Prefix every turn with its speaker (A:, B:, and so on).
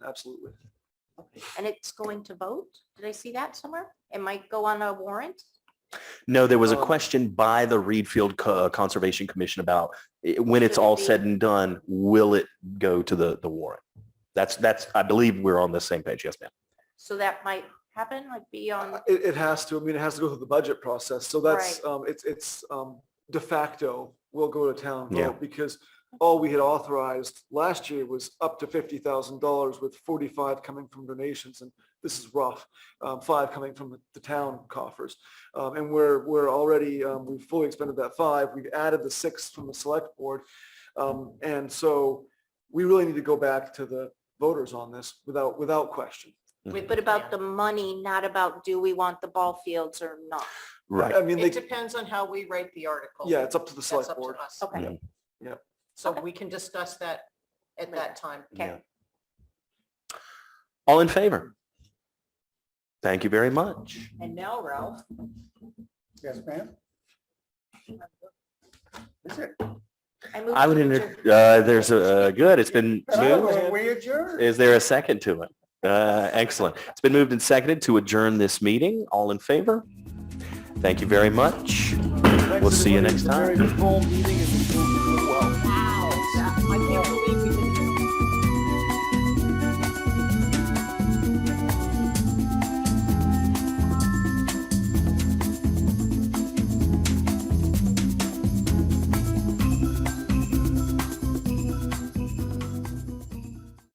A: absolutely.
B: And it's going to vote? Did I see that somewhere? It might go on a warrant?
C: No, there was a
B: Oh.
A: Um,
C: question by the Reedfield Co- uh, Conservation Commission about eh, when it's
B: Should it
C: all
B: be-
C: said and done, will it go to the, the warrant? That's, that's, I believe we're on the same page. Yes, ma'am.
B: So that might happen, like be on,
A: Uh, It, it has to, I mean, it has to go through the budget process, so that's, um, it's, it's, um, de facto will go to town
C: Yeah.
A: vote because all we had authorized last year was up to fifty thousand dollars with forty-five coming from donations and this is rough, um, five coming from the- the town coffers. Um, and we're, we're already, um, we've fully expended that five, we've added the six from the select board. Um, and so we really need to go back to the voters on this without, without question.
C: Mhm.
B: but about the money, not about do we want the ball fields or not?
C: Right.
A: I mean,
D: It
A: they,
D: depends on how we write the article.
A: yeah, it's up to the
D: That's
A: select
D: up to
A: board.
D: us.
B: Okay.
C: Yeah.
D: So we can discuss that at that time.
C: Yeah. All in favor? Thank you very much.
D: And now Ralph,
E: Yes, ma'am. Is it?
B: move
C: I would,
B: to
C: enter-
B: adjourn.
C: uh, there's a, uh, good, it's been moved.
E: Oh, We adjourned.
C: Is there a second to it? Uh, excellent. It's been moved and seconded to adjourn this meeting. All in favor? Thank you very much. We'll see you next time.
A: Very full meeting and we're doing well.
D: I can't believe we didn't do